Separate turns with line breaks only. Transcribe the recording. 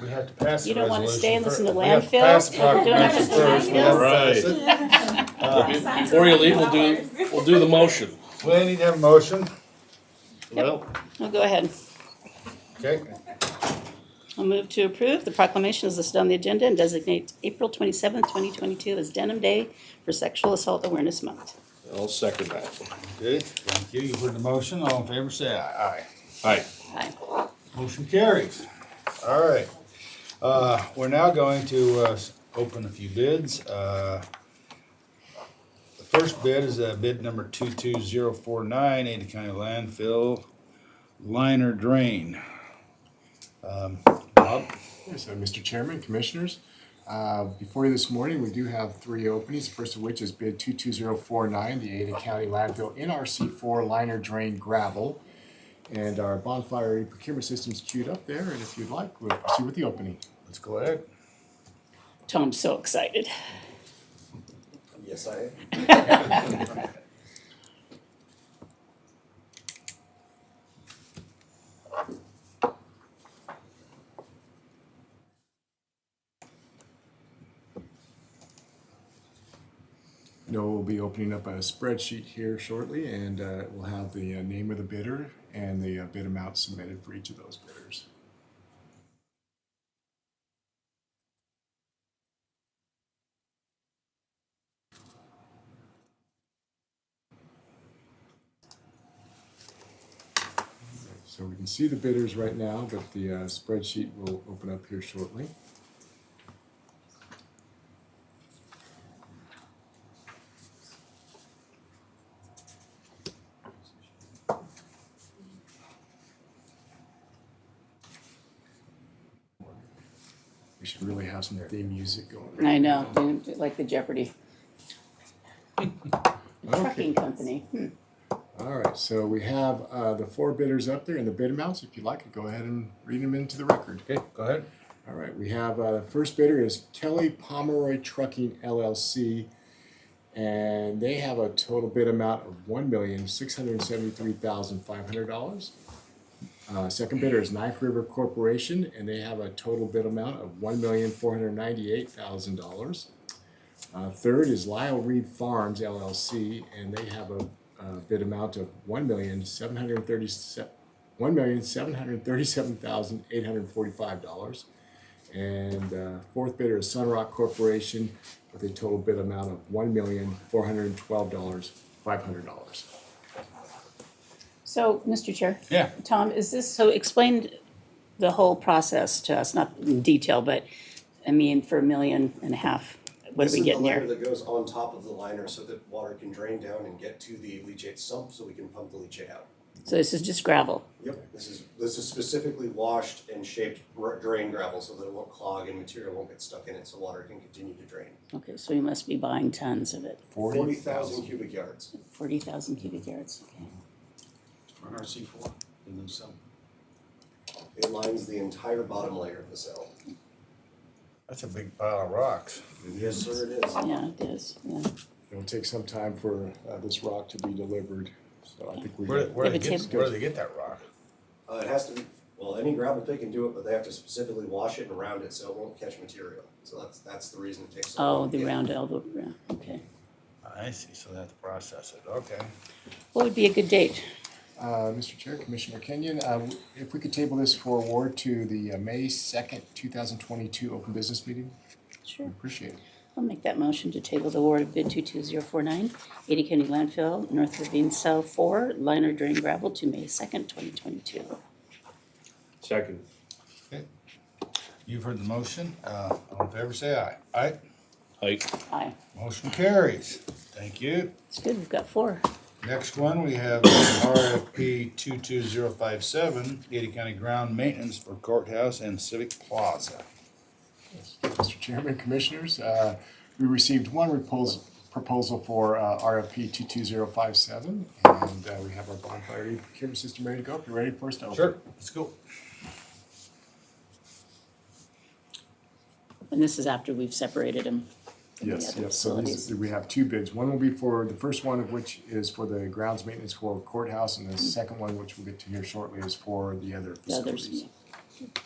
We have to pass the
You don't wanna stay
resolution first.
and listen to
We have to pass the
landfill? Don't
proclamation
have to
first, we have to pass it. Uh,
Before you leave, we'll do, we'll do the motion.
We need to have a motion,
Well,
I'll go ahead.
okay?
I'll move to approve the proclamation as listed on the agenda and designate April twenty-seventh, twenty twenty-two as Denim Day for Sexual Assault Awareness Month.
I'll second that.
Okay, thank you, you heard the motion, all in favor say aye.
Aye.
Aye.
Motion carries. All right, uh, we're now going to, uh, s- open a few bids, uh. The first bid is, uh, bid number two-two-zero-four-nine, Ada County landfill liner drain. Um, Bob?
Yes, uh, Mr. Chairman, Commissioners, uh, before you this morning, we do have three openings, the first of which is bid 22049, the Ada County landfill NRC4 liner drain gravel. And our bonfire procurement system's queued up there, and if you'd like, we'll proceed with the opening.
Let's go ahead.
Tom's so excited.
Yes, I am.
No, we'll be opening up a spreadsheet here shortly, and uh, we'll have the uh, name of the bidder and the uh, bid amount submitted for each of those bidders. So we can see the bidders right now, but the uh, spreadsheet will open up here shortly. We should really have some theme music going. right
I
now.
know, you like the Jeopardy. Trucking company. Hmm.
All right, so we have uh, the four bidders up there and the bid amounts. If you'd like, to go ahead and read them into the record.
Okay, go ahead.
All right, we have uh, the first bidder is Kelly Pomeroy Trucking LLC, and they have a total bid amount of one million six hundred seventy-three thousand five hundred dollars. Uh, second bidder is Knife River Corporation, and they have a total bid amount of one million four hundred ninety-eight thousand dollars. Uh, third is Lyle Reed Farms LLC, and they have a, uh bid amount of one million seven hundred thirty-seven, one million seven hundred thirty-seven thousand eight hundred forty-five dollars. And uh, fourth bidder is Sunrock Corporation with a total bid amount of one million four hundred twelve dollars five hundred dollars.
So, Mr. Chair.
Yeah.
Tom, is this, so explain the whole process to us, not in detail, but, I mean, for a million and a half, what are
This
we
is the
getting
liner
there?
that goes on top of the liner so that water can drain down and get to the leachate sump so we can pump the leachate out.
So this is just gravel.
Yep, this is, this is specifically washed and shaped r- drain gravel so that it won't clog and material won't get stuck in it so water can continue to drain.
Okay, so you must be buying tons of it,
Forty thousand cubic yards.
forty thousand cubic yards, okay.
for RC four, and then some.
It lines the entire bottom layer of the cell.
That's a big pile of rocks.
Yes, sir, it is.
Yeah, it is, yeah.
It'll take some time for uh, this rock to be delivered, so I think we.
Where, where
If
they
it's
get,
his-
where they get that rock?
Uh, it has to be, well, any gravel pit can do it, but they have to specifically wash it and round it so it won't catch material. So that's, that's the reason it takes so long.
Oh,
to
the
get.
round elbow, yeah, okay.
Ah, I see, so they have to process it, okay.
What would be a good date?
Uh, Mr. Chair, Commissioner Kenyon, uh, if we could table this for award to the uh, May second, two thousand twenty-two open business meeting,
Sure.
appreciate it.
I'll make that motion to table the award of bid 22049, Ada County Landfill, North Ravine Cell 4, liner drain gravel to May 2nd, 2022.
Second.
You've heard the motion, uh, all in favor say aye. Aye,
Aye.
Aye.
motion carries, thank you.
It's good, we've got four.
Next one, we have RFP two-two-zero-five-seven, Ada County Ground Maintenance for Courthouse and Civic Plaza.
Mr. Chairman, Commissioners, uh, we received one repos- proposal for uh, RFP 22057, and uh, we have our bonfire procurement system ready to go. If you're ready for us to open.
Let's go.
And this is after we've separated them.
Yes,
Yeah, the
yes, so these, we have two bids. One will be for, the first one of which is for the grounds maintenance for courthouse, and the second one, which we'll get to here shortly, is for the other
The others,
facilities.